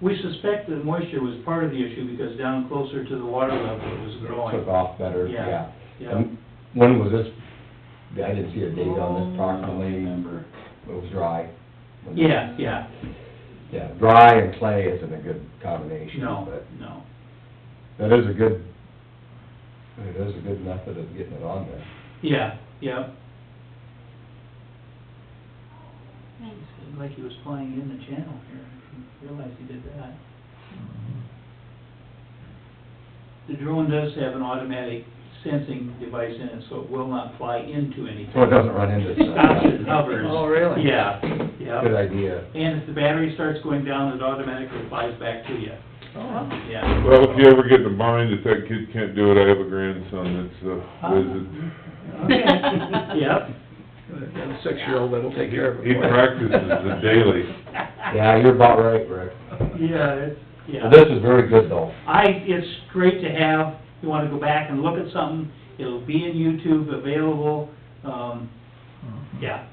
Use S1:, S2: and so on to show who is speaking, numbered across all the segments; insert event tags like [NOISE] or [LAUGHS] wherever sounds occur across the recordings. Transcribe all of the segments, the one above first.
S1: We suspect that moisture was part of the issue because down closer to the water level it was
S2: Took
S1: growing.
S2: off better,
S1: Yeah,
S2: yeah.
S1: yeah.
S2: And When was this, I didn't see a date on this
S1: Oh.
S2: properly,
S3: remember.
S2: it was dry.
S1: Yeah, yeah,
S2: Yeah, dry and clay isn't a good combination,
S1: no,
S2: but
S1: no.
S2: that is a good, it is a good method of getting it on there.
S1: Yeah, yeah. Seemed like he was flying in the channel here, I didn't realize he did that. The drone does have an automatic sensing device in it, so it will not fly into anything.
S2: So it doesn't run
S1: [LAUGHS]
S2: into
S1: It stops and
S2: stuff.
S1: hovers.
S3: Oh, really?
S1: Yeah, yeah.
S2: Good idea.
S1: And if the battery starts going down, it automatically flies back to you,
S3: Oh,
S1: yeah.
S4: Well, if you ever get in the mind that that kid can't do it, I have a grandson that's uh, a wizard.
S1: Yep,
S3: A six-year-old that'll take care of it.
S4: He practices
S2: [LAUGHS]
S4: it daily.
S2: Yeah, you're about right, Rick.
S1: yeah, it's, yeah.
S2: Well, This is very good though.
S1: I, it's great to have, you wanna go back and look at something, it'll be in YouTube available, um, yeah.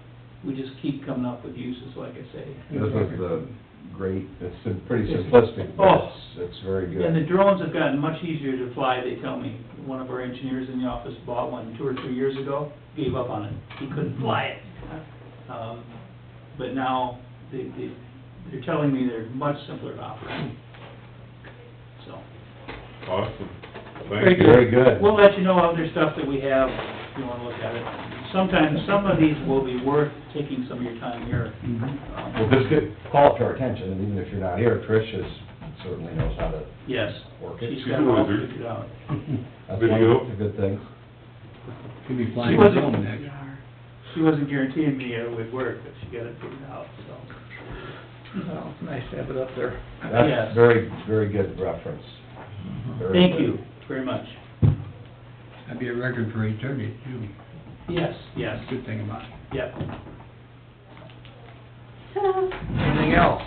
S1: We just keep coming up with uses, like I say.
S2: This is the great, it's sim- pretty simplistic, but it's, it's very
S1: Oh. And the
S2: good.
S1: drones have gotten much easier to fly, they tell me. One of our engineers in the office bought one two or three years ago, gave up on it, he couldn't fly it. Um, But now, they, they, they're telling me they're much simpler to operate, so.
S4: Awesome.
S1: Very
S4: Thank you.
S2: Very good.
S1: We'll let you know other stuff that we have, if you wanna look at it. Sometimes, some of these will be worth taking some of your time here.
S2: Well,
S1: Um,
S2: just get, call it to our attention, and even if you're not here, Trish is, certainly knows how to
S1: Yes,
S2: work it.
S1: she's got it all
S4: She's a wizard.
S1: figured out.
S2: That's one
S4: Video.
S2: of the good things.
S3: Could be
S1: She
S3: flying his own next.
S1: wasn't, she wasn't guaranteeing me it would work, but she got it figured out, so.
S3: Well, it's nice to have it up there.
S1: Yes.
S2: That's very, very good reference. Very
S1: Thank
S2: good.
S1: you very much.
S3: That'd be a record for eternity, too.
S1: Yes, yes,
S3: Good thing about it.
S1: yep.
S3: Anything else?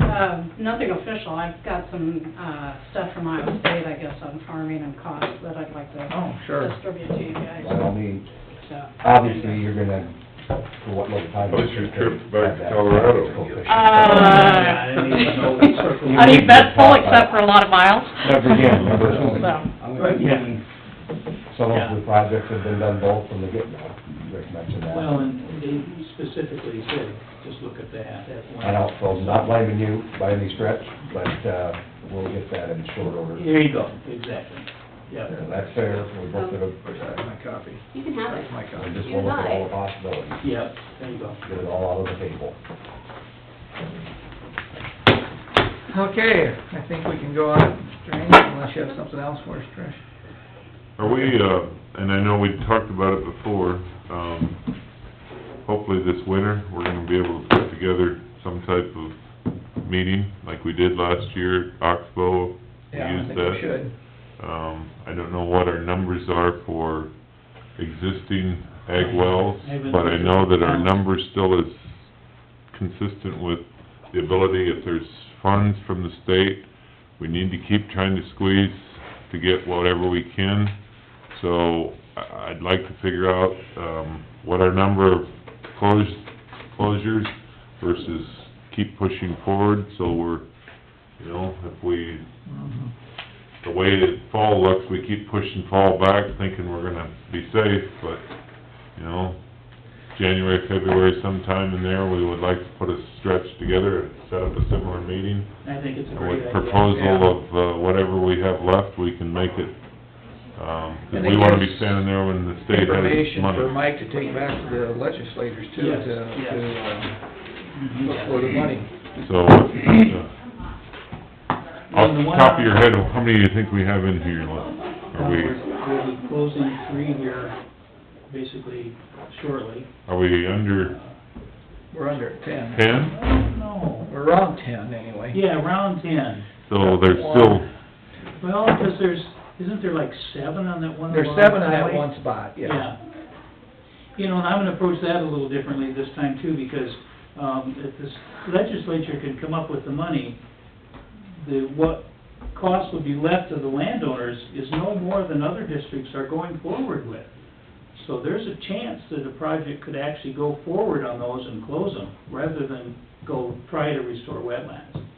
S5: Um, Nothing official, I've got some uh stuff from Iowa State, I guess, on farming and costs that I'd like to
S3: Oh, sure.
S5: distribute to you guys.
S2: I don't need,
S5: So-
S2: obviously, you're gonna, for what little time.
S4: What's your trip
S2: have
S4: back to
S2: that
S4: Colorado?
S2: coefficient.
S1: Uh, [LAUGHS] I didn't even know we circled.
S6: I mean, that's full except for a lot of miles.
S2: Never again,
S1: [LAUGHS]
S2: remember,
S6: So.
S3: I would be
S1: Yeah.
S2: some of the projects have been done both from the get-go, Rick mentioned that.
S1: Well, and they specifically said, just look at that, that's one.
S2: I don't, so not blaming you by any stretch, but, uh, we'll get that in short order.
S1: There you go, exactly, yeah.
S2: And That's fair, we both did a,
S3: Where's that, my copy?
S7: You can have it.
S3: That's my
S2: we
S3: copy.
S2: just wanna look at all the possibilities,
S1: Yep, there you go.
S2: get it all out of the table.
S3: Okay, I think we can go on, Strange, unless you have something else for us, Trish.
S4: Are we, uh, and I know we talked about it before, um, hopefully this winter, we're gonna be able to put together some type of meeting, like we did last year, at Oxbow. We
S3: Yeah, I
S4: used
S3: think we
S4: that.
S3: should.
S4: Um, I don't know what our numbers are for existing ag wells, but I know that our number still is consistent with the ability, if there's funds from the state, we need to keep trying to squeeze to get whatever we can. So I- I'd like to figure out, um, what our number of close, closures versus keep pushing forward, so we're, you know, if we
S3: Mhm.
S4: the way that fall looks, we keep pushing fall back, thinking we're gonna be safe, but, you know, January, February sometime in there, we would like to put a stretch together and set up a similar meeting.
S1: I think it's a
S4: And with
S1: great idea.
S4: proposal of uh, whatever we have left, we can make it, um, 'cause
S3: And
S4: we
S3: it
S4: wanna
S3: gives
S4: be standing there when the state has its
S3: Information for
S4: money.
S3: Mike to take back to the legislators, too, to,
S1: Yes, yes.
S3: to, uh,
S1: Mhm.
S3: look for the money.
S4: So, uh,
S1: Well,
S4: off
S1: and
S4: the
S1: one
S4: top of your
S1: on-
S4: head, how many do you think we have in here? Are we,
S1: We'll be closing three here basically shortly.
S4: are we under
S3: We're under at ten.
S4: ten?
S1: No.
S3: We're around ten, anyway.
S1: Yeah, round ten.
S4: So there's still
S1: Well, because there's, isn't there like seven on that one?
S3: There's
S1: along
S3: seven
S1: the
S3: in that
S1: highway?
S3: one spot, yeah.
S1: You know, and I'm gonna approach that a little differently this time too, because, um, if this legislature can come up with the money, the, what cost would be left to the landowners is no more than other districts are going forward with. So there's a chance that a project could actually go forward on those and close them, rather than go try to restore wetlands.